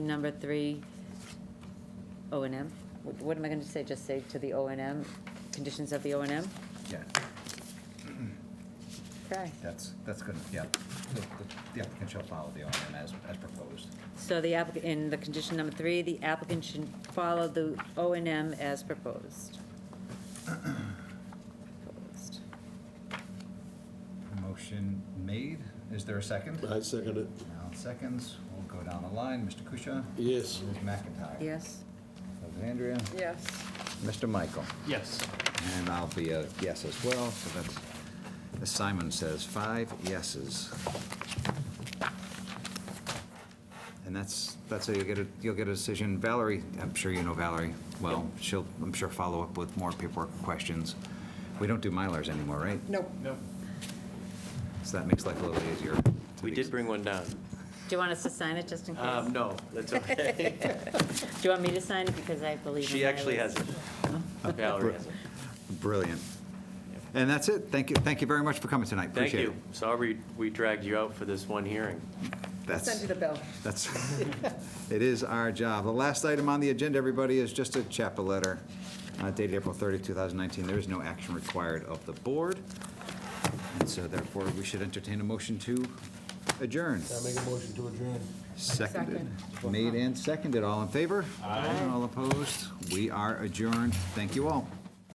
Number three, O and M. What what am I gonna say? Just say to the O and M, conditions of the O and M? Yeah, Okay. that's, that's good, yeah. The- the- The applicant shall follow the O and M as, as proposed. So the applicant, in the condition number three, the applicant should follow the O and M as proposed. Proposed. Motion made, is there a second? I second it. Now, seconds, we'll go down the line, Mr. Kusha. Yes. Ms. McIntyre. Yes? Alexandria. Yes. Mr. Michael. Yes. And I'll be a yes as well, so that's, as Simon says, five yeses. And that's, that's how you'll get a, you'll get a decision. Valerie, I'm sure you know Valerie, well, she'll, I'm sure, follow up with more paperwork questions. We don't do Mylars anymore, right? Nope. No. So that makes life a little easier. to We the did bring one down. Do you want us to sign it just in case? Um, no, that's okay. Do you want me to sign it because I believe? She in actually Iris. has it. Valerie has it. Brilliant. And that's it. Thank you, thank you very much for coming tonight. Thank Appreciate it. you. Sorry we dragged you out for this one hearing. That's- bill. That's, it is our job. The last item on the agenda, everybody, is just a chapel letter uh, dated April 30, 2019. There is no action required of the board, and so therefore, we should entertain a motion to adjourn. I make a motion to adjourn. Seconded. Made and seconded. All in favor? Aye. All opposed? We are adjourned. Thank you all.